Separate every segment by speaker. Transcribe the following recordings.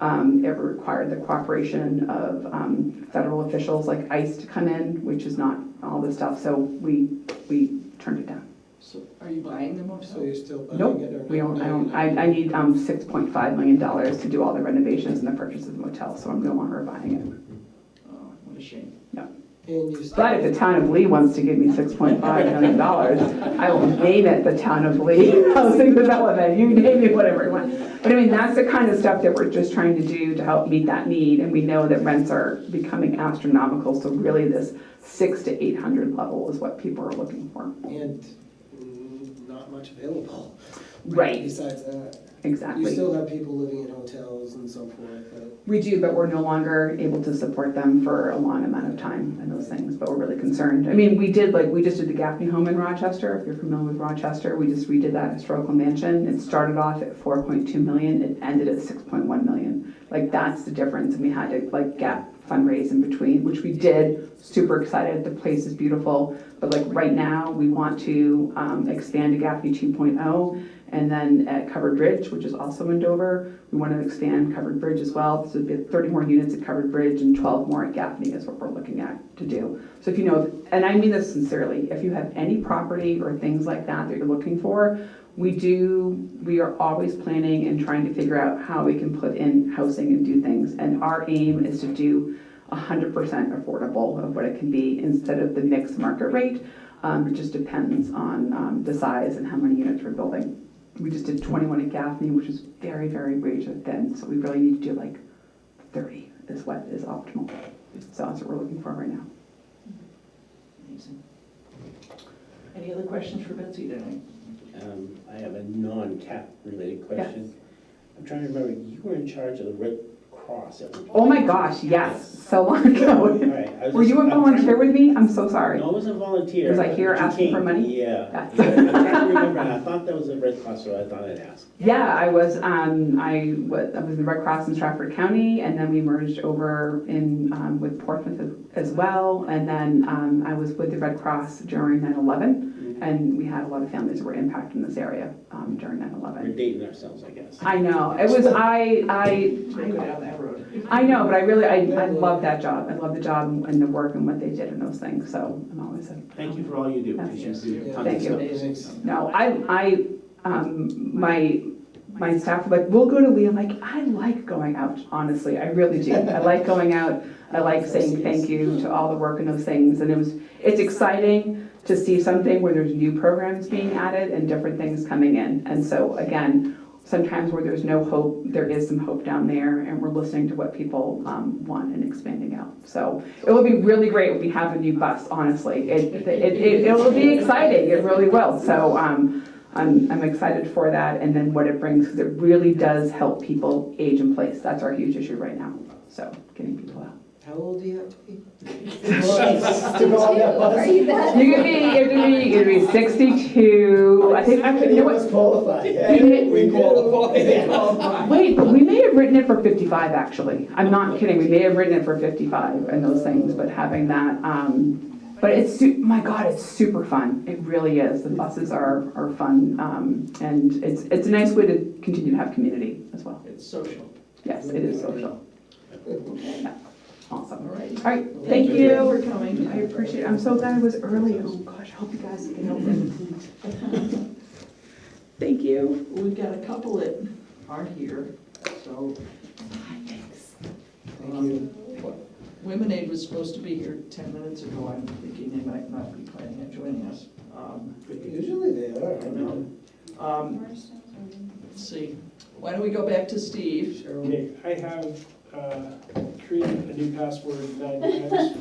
Speaker 1: Um, It required the cooperation of um, federal officials like ICE to come in, which is not all the stuff, so we, we turned it down.
Speaker 2: So,
Speaker 3: Are you buying them off?
Speaker 2: so you're still buying it or?
Speaker 1: Nope,
Speaker 2: not?
Speaker 1: we don't, I don't, I,
Speaker 2: No,
Speaker 1: I need um, $6.5 million to do all the renovations and the purchase of the motel, so I'm no longer buying it.
Speaker 3: Oh, what a shame.
Speaker 2: no. And you still.
Speaker 1: But if the town of Lee wants to give me $6.5 million, I will name it the Town of Lee Housing Development, you name it, whatever you want. But I mean, that's the kind of stuff that we're just trying to do to help meet that need, and we know that rents are becoming astronomical, so really this six to 800 level is what people are looking for.
Speaker 2: And mm, not much available.
Speaker 1: Right,
Speaker 2: Besides that, you
Speaker 1: exactly.
Speaker 2: still have people living in hotels and so forth, but
Speaker 1: We do, but we're no longer able to support them for a long amount of time and those things, but we're really concerned. I mean, we did, like, we just did the Gaffney Home in Rochester, if you're familiar with Rochester, we just redid that historical mansion. It started off at four point two million, it ended at six point one million. Like, that's the difference, and we had to, like, gap fundraise in between, which we did, super excited, the place is beautiful. But like, right now, we want to, um, expand to Gaffney two oh, and then at Covered Bridge, which is also in Dover, we want to expand Covered Bridge as well. So it'd be 30 more units at Covered Bridge and 12 more at Gaffney is what we're looking at to do. So if you know, and I mean this sincerely, if you have any property or things like that that you're looking for, we do, we are always planning and trying to figure out how we can put in housing and do things. And our aim is to do 100% affordable of what it can be instead of the mixed market rate. Um, It just depends on um, the size and how many units we're building. We just did 21 at Gaffney, which is very, very razor thin, so we really need to do like 30 is what is optimal. So that's what we're looking for right now.
Speaker 3: Amazing. Any other questions for Betsy tonight?
Speaker 4: Um, I have a non-TAP related question. I'm trying to remember, you were in charge of the Red Cross at one point.
Speaker 1: Oh my gosh, yes, so long ago.
Speaker 4: Alright, I was
Speaker 1: Were
Speaker 4: just-
Speaker 1: you a
Speaker 4: I'm trying-
Speaker 1: volunteer with me? I'm so sorry.
Speaker 4: No, I wasn't a volunteer.
Speaker 1: Was I here
Speaker 4: but you
Speaker 1: asking for
Speaker 4: came.
Speaker 1: money?
Speaker 4: Yeah.
Speaker 1: That's-
Speaker 4: Yeah, I'm trying to remember, and I thought that was the Red Cross, so I thought I'd ask.
Speaker 1: Yeah, I was, um, I was, I was in the Red Cross in Stratford County, and then we merged over in, um, with Portsmouth as- as well. And then, um, I was with the Red Cross during
Speaker 4: Mm-hmm.
Speaker 1: 9/11, and we had a lot of families that were impacted in this area, um, during 9/11.
Speaker 4: We're dating ourselves, I guess.
Speaker 1: I know, it was, I,
Speaker 3: Don't go
Speaker 1: I,
Speaker 3: down that road.
Speaker 1: I know, but I really, I, I love that job, I love the job and the work and what they did and those things, so I'm always a.
Speaker 4: Thank you for all you do, because you
Speaker 3: Yes.
Speaker 4: do tons of
Speaker 1: Thank you.
Speaker 4: stuff.
Speaker 3: Amazing.
Speaker 1: No, I, I, um, my, my staff were like, we'll go to Lee, I'm like, I like going out, honestly, I really do. I like going out, I like saying thank you to all the work and those things, and it was, it's exciting to see something where there's new programs being added and different things coming in. And so, again, sometimes where there's no hope, there is some hope down there, and we're listening to what people, um, want and expanding out. So, it will be really great if we have a new bus, honestly, it, it, it, it will be exciting, it really will, so, um, I'm, I'm excited for that and then what it brings, because it really does help people age in place. That's our huge issue right now. So getting people out.
Speaker 2: how old do you have to be?
Speaker 5: Are you that?
Speaker 1: You could be, you could be, you could be 62. I think, actually, you know
Speaker 2: We
Speaker 1: what? Wait, but we may have written it for 55, actually. I'm not kidding. We may have written it for 55 and those things, but having that, um, but it's, su- my God, it's super fun. It really is. The buses are, are fun. Um, and it's, it's a nice way to continue to have community as well.
Speaker 3: It's social.
Speaker 1: Yes, it is social.
Speaker 3: All
Speaker 1: Awesome.
Speaker 3: right.
Speaker 1: All right,
Speaker 3: Thank
Speaker 1: thank
Speaker 3: you
Speaker 1: you.
Speaker 3: for coming.
Speaker 1: I appreciate, it. I'm so glad I was early. Oh, gosh, I hope you guys can help me. Thank you.
Speaker 3: We've got a couple that aren't here, so.
Speaker 2: Thank you.
Speaker 3: Women Aid was supposed to be here ten minutes ago. I'm thinking they might not be planning on joining us. Um,
Speaker 2: Usually they are.
Speaker 3: I know. Um, let's see. Why don't we go back to Steve?
Speaker 2: Cheryl,
Speaker 6: Okay, I have uh, created a new password nine times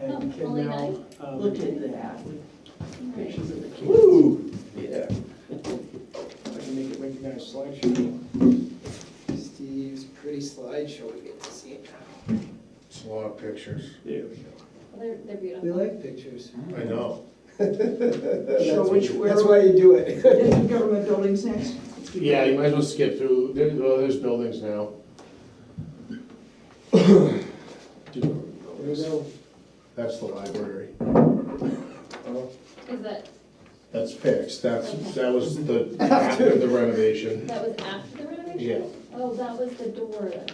Speaker 6: and can
Speaker 5: Only
Speaker 6: now.
Speaker 5: nine?
Speaker 6: um,
Speaker 3: Look at that. Pictures of the kids.
Speaker 6: Woo! Yeah. I can make it recognize slideshow.
Speaker 2: Steve's pretty slideshow, we get to see it now.
Speaker 7: It's a lot of pictures.
Speaker 6: Yeah.
Speaker 5: They're, they're
Speaker 2: We
Speaker 5: beautiful.
Speaker 2: like pictures.
Speaker 7: I know.
Speaker 2: So
Speaker 3: which- where-
Speaker 2: That's why you do it.
Speaker 3: Isn't government buildings next?
Speaker 7: Yeah, you might as well skip through, there, well, there's buildings now.
Speaker 2: There we go.
Speaker 7: That's the library.
Speaker 5: Is that,
Speaker 7: That's fixed, that's, that was the, after the renovation.
Speaker 5: that was after the renovation?
Speaker 7: Yeah.
Speaker 5: Oh, that was the door that